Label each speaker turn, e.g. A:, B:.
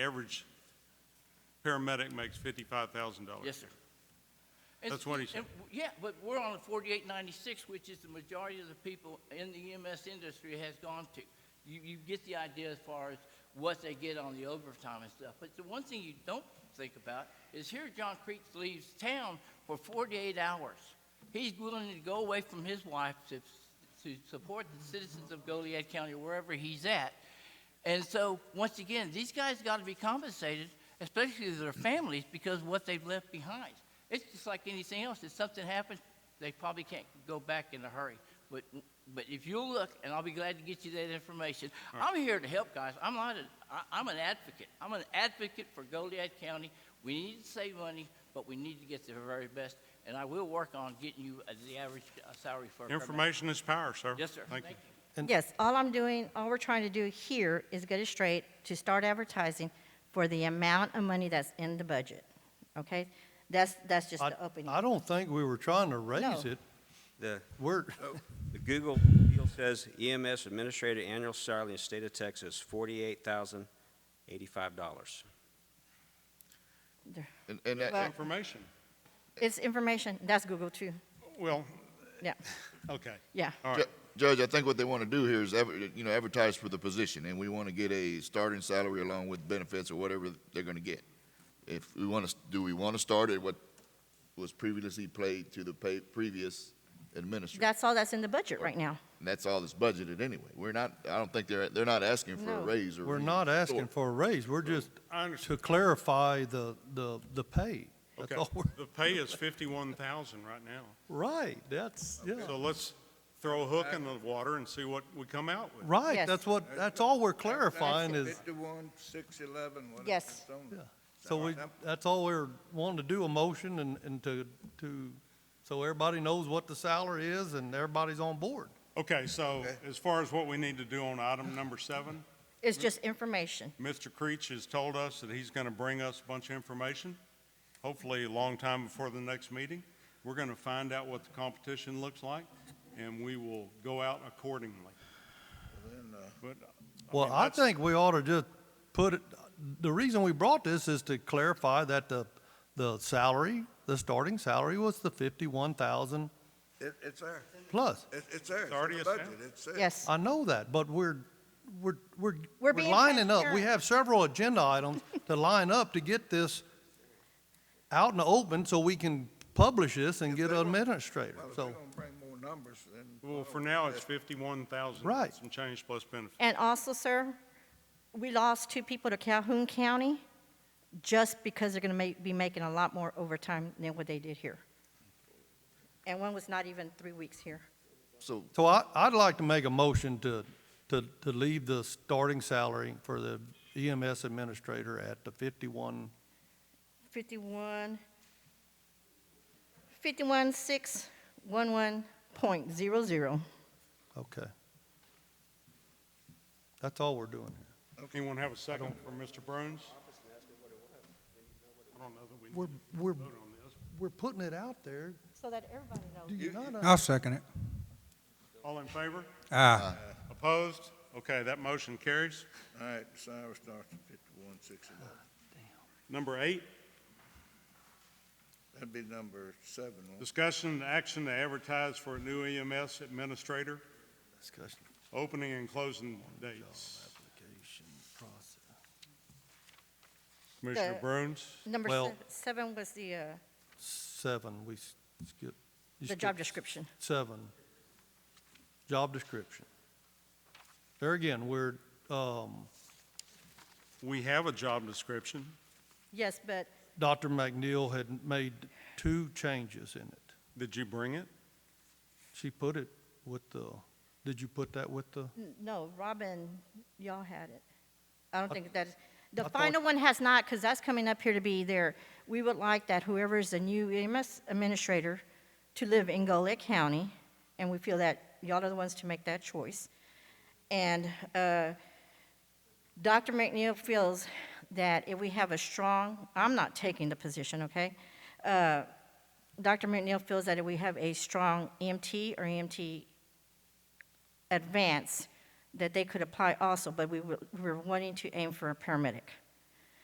A: average paramedic makes fifty-five thousand dollars.
B: Yes, sir. And-
A: That's what he said.
B: and w- Yeah, but we're on forty-eight ninety-six, which is the majority of the people in the EMS industry has gone to. You, you get the idea as far as what they get on the overtime and stuff. But the one thing you don't think about is here John Creeks leaves town for forty-eight hours. He's willing to go away from his wife to, to support the citizens of Goliad County, wherever he's at. And so, once again, these guys got to be compensated, especially their families, because of what they've left behind. It's just like anything else. If something happens, they probably can't go back in a hurry. But, but if you'll look, and I'll be glad to get you that information. I'm here to help, guys. I'm not a, I, I'm an advocate. I'm an advocate for Goliad County. We need to save money, but we need to get the very best. And I will work on getting you uh, the average uh, salary for a paramedic.
A: Information is power, sir.
B: Yes, sir.
A: Thank you.
C: Yes, all I'm doing, all we're trying to do here is get it straight to start advertising for the amount of money that's in the budget, okay? That's, that's just
D: I-
C: the opening.
D: I don't think we were trying to raise
C: No.
D: it.
E: The,
D: We're,
E: the Google deal says EMS administrator annual salary in the state of Texas, forty-eight thousand eighty-five dollars.
F: And, and that,
C: Well-
A: Information.
C: It's information, that's Google too,
A: Well,
C: yeah,
A: okay.
C: yeah.
A: All
F: Ju-
A: right.
F: Judge, I think what they want to do here is, adver- you know, advertise for the position, and we want to get a starting salary along with benefits or whatever they're going to get. If we want to, do we want to start at what was previously paid to the pay, previous administrator?
C: That's all that's in the budget right now.
F: And that's all that's budgeted anyway. We're not, I don't think they're, they're not asking for a
C: No.
F: raise or.
D: we're
F: re-
D: not
F: or-
D: asking for a raise, we're just
A: I understand.
D: to clarify the, the, the pay. That's
A: Okay.
D: all we're,
A: The pay is fifty-one thousand right now.
D: right, that's, yeah.
A: So let's throw a hook in the water and see what we come out with.
D: Right,
C: Yes.
D: that's what, that's all we're clarifying is,
G: Fifty-one, six eleven, whatever.
C: Yes.
G: it's on.
D: Yeah. so we, that's all we're wanting to do, a motion and, and to, to, so everybody knows what the salary is and everybody's on board.
A: Okay, so as far as what we need to do on item number seven,
C: It's just information.
A: Mr. Creech has told us that he's going to bring us a bunch of information, hopefully a long time before the next meeting. We're going to find out what the competition looks like, and we will go out accordingly. But, I
D: Well,
A: mean,
D: I
A: that's-
D: think we ought to just put it, the reason we brought this is to clarify that the, the salary, the starting salary was the fifty-one thousand
G: It, it's there.
D: plus.
G: It, it's there. It's
A: already
G: in the
A: established.
G: budget. It's there.
C: Yes,
D: I know that, but we're, we're, we're,
C: We're
D: we're
C: being
D: lining up. We
C: transparent.
D: have several agenda items to line up to get this out in the open so we can publish this and get an administrator,
G: Well, if they're
D: so.
G: gonna bring more numbers, then.
A: Well, for now, it's fifty-one thousand.
D: Right.
A: Some change plus benefits.
C: and also, sir, we lost two people to Calhoun County just because they're gonna ma- be making a lot more overtime than what they did here. And one was not even three weeks here.
F: So,
D: So I, I'd like to make a motion to, to, to leave the starting salary for the EMS administrator at the fifty-one
C: 51, 51,611.00.
D: Okay. That's all we're doing here.
A: Anyone have a second for Mr. Bruins? I don't know that we need
D: We're,
A: to
D: we're,
A: vote on this.
D: we're putting it out there.
C: So that everybody knows.
D: Do you not?
H: I'll second it.
A: All in favor?
H: Aye.
A: Opposed? Okay, that motion carries.
G: All right, salary starts at fifty-one, six eleven.
A: Number eight,
G: That'd be number seven. won't it?
A: discussion and action to advertise for a new EMS administrator,
D: Discussion,
A: opening and closing dates.
D: application, process.
A: Commissioner
C: The-
A: Bruins?
C: Number
D: Well-
C: se- seven was the, uh,
D: Seven, we s- skip. you
C: the job
D: skipped
C: description.
D: Seven. Job description. There again, we're, um,
A: We have a job description.
C: Yes, but
D: Dr. McNeil had made two changes in it.
A: Did you bring it?
D: She put it with the, did you put that with the?
C: n- no, Robin, y'all had it. I don't think that,
D: I
C: the
D: thought-
C: final one has not, because that's coming up here to be there. We would like that whoever is the new EMS administrator to live in Goliad County, and we feel that y'all are the ones to make that choice. And uh, Dr. McNeil feels that if we have a strong, I'm not taking the position, okay? Uh, Dr. McNeil feels that if we have a strong EMT or E EMT advance, that they could apply also, but we were, we were wanting to aim for a paramedic.